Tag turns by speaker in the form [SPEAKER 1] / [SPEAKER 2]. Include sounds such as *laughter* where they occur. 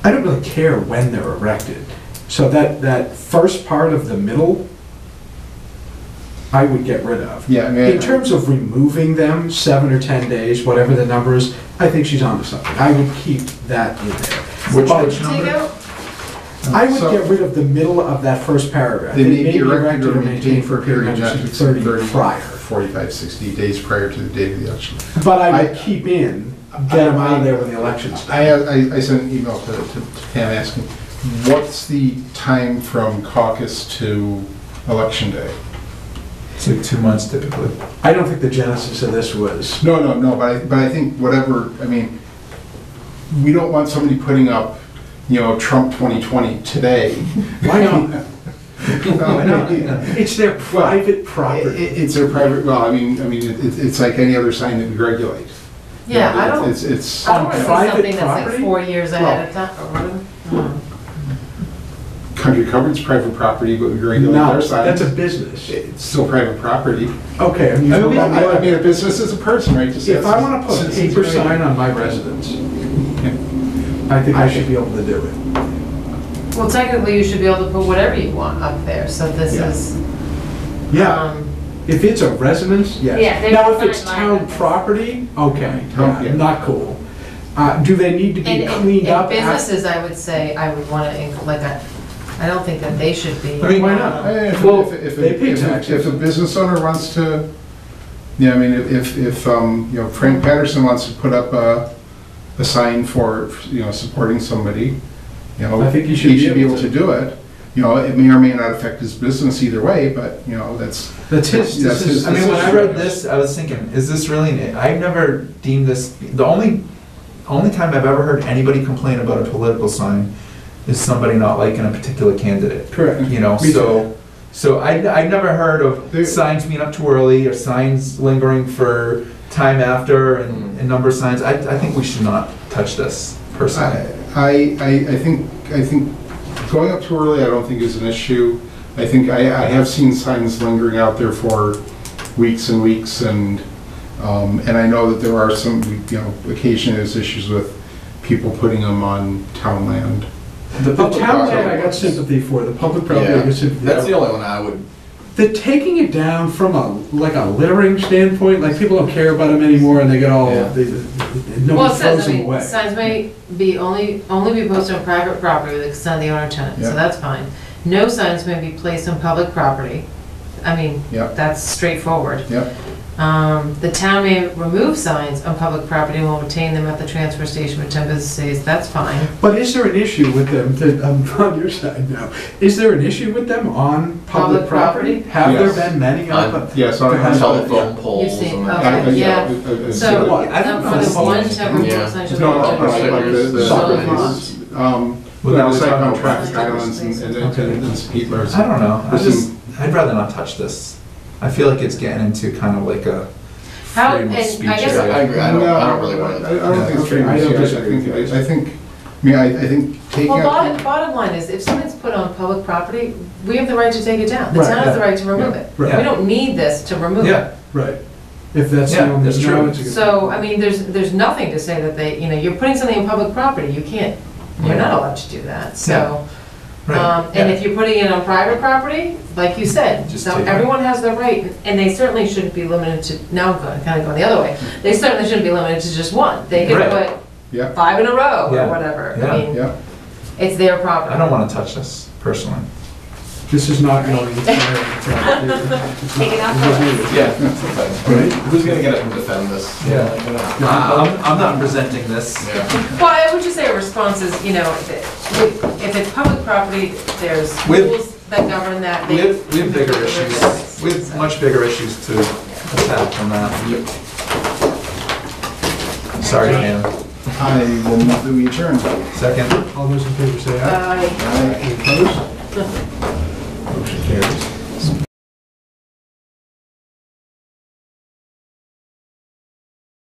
[SPEAKER 1] I don't really care when they're erected. So that, that first part of the middle, I would get rid of.
[SPEAKER 2] Yeah, I mean,
[SPEAKER 1] In terms of removing them, seven or 10 days, whatever the number is, I think she's onto something. I would keep that in there.
[SPEAKER 2] Which-
[SPEAKER 1] But
[SPEAKER 2] which
[SPEAKER 3] Take out,
[SPEAKER 1] I would
[SPEAKER 2] So-
[SPEAKER 1] get rid of the middle of that first paragraph.
[SPEAKER 2] They
[SPEAKER 1] It
[SPEAKER 2] may be erected or maintained for a period
[SPEAKER 1] not
[SPEAKER 2] not
[SPEAKER 1] exceeding
[SPEAKER 2] exceeding
[SPEAKER 1] 30
[SPEAKER 2] 30,
[SPEAKER 1] prior.
[SPEAKER 2] 45, 60 days prior to the date of the election.
[SPEAKER 1] But I
[SPEAKER 2] I-
[SPEAKER 1] would keep in, get them out of there when the election's done.
[SPEAKER 2] I, I I sent an email to to- to Pam asking, what's the time from caucus to election day?
[SPEAKER 4] It's like two months typically.
[SPEAKER 1] I don't think the genesis of this was,
[SPEAKER 2] No, no, no, but I, but I think whatever, I mean, we don't want somebody putting up, you know, Trump 2020
[SPEAKER 1] *laughs*
[SPEAKER 2] today.
[SPEAKER 1] why not? Why not?
[SPEAKER 2] It-
[SPEAKER 1] It's their private property.
[SPEAKER 2] it- It's a private, well, I mean, I mean, it- it- it's like any other sign that we regulate.
[SPEAKER 3] yeah, I don't,
[SPEAKER 2] It's, it's,
[SPEAKER 3] I don't want to
[SPEAKER 1] on
[SPEAKER 3] see
[SPEAKER 1] private
[SPEAKER 3] something that's like
[SPEAKER 1] property?
[SPEAKER 3] four years ahead of time.
[SPEAKER 2] country covered's private property, but we regulate
[SPEAKER 1] No,
[SPEAKER 2] their signs.
[SPEAKER 1] that's a business.
[SPEAKER 2] It's still private property.
[SPEAKER 1] Okay, I mean,
[SPEAKER 2] I mean, I I mean,
[SPEAKER 1] if
[SPEAKER 2] a business is a person, right? Just
[SPEAKER 1] I
[SPEAKER 2] as-
[SPEAKER 1] want to put a
[SPEAKER 2] since-
[SPEAKER 1] paper sign on my residence, I think I should be able to do it.
[SPEAKER 3] Well, technically, you should be able to put whatever you want up there, so this
[SPEAKER 1] Yeah.
[SPEAKER 3] is,
[SPEAKER 1] Yeah,
[SPEAKER 3] um,
[SPEAKER 1] if it's a residence,
[SPEAKER 5] Yeah,
[SPEAKER 1] yes.
[SPEAKER 5] they
[SPEAKER 1] Now, if
[SPEAKER 5] define
[SPEAKER 1] it's
[SPEAKER 5] mine
[SPEAKER 1] town
[SPEAKER 5] as-
[SPEAKER 1] property, okay,
[SPEAKER 2] Town, yeah.
[SPEAKER 1] yeah, not cool. Uh, Do they need to
[SPEAKER 3] and,
[SPEAKER 1] be
[SPEAKER 3] and
[SPEAKER 1] cleaned
[SPEAKER 3] and
[SPEAKER 1] up?
[SPEAKER 3] businesses, I would say, I would want to, like, I, I don't think that they should be.
[SPEAKER 4] I mean,
[SPEAKER 1] why not?
[SPEAKER 2] Eh, If,
[SPEAKER 1] Well,
[SPEAKER 2] if, if,
[SPEAKER 1] they pay
[SPEAKER 2] if-
[SPEAKER 1] taxes.
[SPEAKER 2] if a business owner wants to, yeah, I mean, if, if, um, you know, Frank Patterson wants to put up a, a sign for, you know, supporting somebody, you know.
[SPEAKER 1] I think he should be
[SPEAKER 2] be
[SPEAKER 1] able
[SPEAKER 2] able to do it. You know, it may or may not affect his business either way, but, you know, that's,
[SPEAKER 1] That's his,
[SPEAKER 2] That's
[SPEAKER 1] this is.
[SPEAKER 2] his-
[SPEAKER 4] I mean, when I
[SPEAKER 2] is-
[SPEAKER 4] read this, I was thinking, is this really, an- I've never deemed this, the only, only time I've ever heard anybody complain about a political sign is somebody not liking a particular candidate,
[SPEAKER 1] Correct.
[SPEAKER 4] you know,
[SPEAKER 1] Me
[SPEAKER 4] so, so I, I've never heard
[SPEAKER 2] There-
[SPEAKER 4] of signs being up too early or signs lingering for time after and, and number signs. I, I think we should not touch this
[SPEAKER 2] I,
[SPEAKER 4] personally.
[SPEAKER 2] I, I I think, I think going up too early, I don't think is an issue. I think, I, I have seen signs lingering out there for weeks and weeks and, um, and I know that there are some, you know, occasionally there's issues with people putting them on town land.
[SPEAKER 1] The
[SPEAKER 6] public
[SPEAKER 1] town
[SPEAKER 6] property
[SPEAKER 1] land I got
[SPEAKER 6] was-
[SPEAKER 1] sympathy for, the public property I
[SPEAKER 6] Yeah,
[SPEAKER 1] got sympathy.
[SPEAKER 6] that's
[SPEAKER 1] for.
[SPEAKER 6] the only one I would,
[SPEAKER 1] They're taking it down from a, like a littering standpoint, like people don't care about them anymore and they get all,
[SPEAKER 6] Yeah.
[SPEAKER 1] they- they- no
[SPEAKER 3] Well,
[SPEAKER 1] one
[SPEAKER 3] it says,
[SPEAKER 1] throws
[SPEAKER 3] I
[SPEAKER 1] them
[SPEAKER 3] mean,
[SPEAKER 1] away.
[SPEAKER 3] signs may be only, only be posted on private property with extend the owner tenant, so
[SPEAKER 2] Yeah.
[SPEAKER 3] that's fine. No signs may be placed on public property. I mean,
[SPEAKER 2] Yeah.
[SPEAKER 3] that's straightforward.
[SPEAKER 2] Yep.
[SPEAKER 3] Um, the town may remove signs on public property and will retain them at the transfer station for ten business days, that's fine.
[SPEAKER 1] But is there an issue with them, that- I'm on your side now, is there an issue with them on public
[SPEAKER 3] Public property?
[SPEAKER 1] property? Have there
[SPEAKER 2] Yes.
[SPEAKER 1] been many of them?
[SPEAKER 2] Yes, I, I,
[SPEAKER 1] Perhaps.
[SPEAKER 2] I-
[SPEAKER 6] telephone poles
[SPEAKER 3] see,
[SPEAKER 6] and
[SPEAKER 2] I-
[SPEAKER 3] okay.
[SPEAKER 6] that.
[SPEAKER 2] I-
[SPEAKER 3] Yeah.
[SPEAKER 2] I- I- I-
[SPEAKER 3] So,
[SPEAKER 4] what? I don't
[SPEAKER 3] um, for this
[SPEAKER 4] know.
[SPEAKER 3] one temporary
[SPEAKER 6] Yeah.
[SPEAKER 3] sign.
[SPEAKER 2] No, no, no,
[SPEAKER 6] Soccer
[SPEAKER 2] like uh, the, the.
[SPEAKER 6] soccer
[SPEAKER 3] laws.
[SPEAKER 2] Um,
[SPEAKER 4] Well, that was
[SPEAKER 2] like
[SPEAKER 4] talking
[SPEAKER 2] on
[SPEAKER 4] about-
[SPEAKER 2] traffic islands and, and, and and speeders.
[SPEAKER 4] I don't know, I
[SPEAKER 2] This is-
[SPEAKER 4] just, I'd rather not touch this. I feel like it's getting into kind of like a
[SPEAKER 3] How-
[SPEAKER 4] freedom of
[SPEAKER 3] and I
[SPEAKER 4] speech
[SPEAKER 3] guess-
[SPEAKER 4] area.
[SPEAKER 6] I agree, I don't, I don't really
[SPEAKER 2] No,
[SPEAKER 6] want
[SPEAKER 2] I I
[SPEAKER 6] to.
[SPEAKER 2] don't think it's
[SPEAKER 1] Okay, I don't
[SPEAKER 2] true, I
[SPEAKER 1] disagree
[SPEAKER 2] think,
[SPEAKER 1] with
[SPEAKER 2] I I think, I mean, I, I think taking
[SPEAKER 3] Well,
[SPEAKER 2] out.
[SPEAKER 3] bottom, bottom line is, if something's put on public property, we have the right to take it down. The
[SPEAKER 1] Right,
[SPEAKER 3] town has the
[SPEAKER 1] yeah.
[SPEAKER 3] right to remove
[SPEAKER 2] Yeah.
[SPEAKER 3] it. We
[SPEAKER 1] Right.
[SPEAKER 3] don't need this to remove it.
[SPEAKER 4] Yeah,
[SPEAKER 1] Right, if that's the
[SPEAKER 4] Yeah,
[SPEAKER 1] only.
[SPEAKER 4] that's
[SPEAKER 1] no,
[SPEAKER 4] true.
[SPEAKER 1] it's a good-
[SPEAKER 3] So, I mean, there's, there's nothing to say that they, you know, you're putting something in public property, you can't, you're not allowed to do that, so.
[SPEAKER 4] Right,
[SPEAKER 3] um, And
[SPEAKER 4] yeah.
[SPEAKER 3] if you're putting it on private property, like you said,
[SPEAKER 4] Just
[SPEAKER 3] so
[SPEAKER 4] take it.
[SPEAKER 3] everyone has the right, and they certainly shouldn't be limited to, now I'm going, kinda going the other way. They certainly shouldn't be limited to just one, they could
[SPEAKER 4] Right.
[SPEAKER 3] put
[SPEAKER 2] Yeah,
[SPEAKER 3] five in a row
[SPEAKER 4] Yeah.
[SPEAKER 3] or whatever,
[SPEAKER 4] Yeah.
[SPEAKER 3] I mean,
[SPEAKER 2] yeah.
[SPEAKER 3] it's their property.
[SPEAKER 4] I don't want to touch this personally.
[SPEAKER 1] This is not going. Take
[SPEAKER 3] *laughs*
[SPEAKER 5] Take it off.
[SPEAKER 6] Yeah.
[SPEAKER 1] Right?
[SPEAKER 6] Who's gonna get up and defend this?
[SPEAKER 4] Yeah.
[SPEAKER 6] You know.
[SPEAKER 4] I'm, I'm not presenting this.
[SPEAKER 6] Yeah.
[SPEAKER 3] Well, I would just say a response is, you know, if if it's public property, there's
[SPEAKER 4] With-
[SPEAKER 3] rules that govern that.
[SPEAKER 4] We
[SPEAKER 3] They-
[SPEAKER 4] have, we have bigger issues, we have
[SPEAKER 3] So-
[SPEAKER 4] much bigger issues to attack than that. Sorry, Dan.
[SPEAKER 2] I will move that we adjourn.
[SPEAKER 4] Second?
[SPEAKER 1] All those in favor say aye.
[SPEAKER 3] Uh,
[SPEAKER 2] Aye, opposed? Motion carries.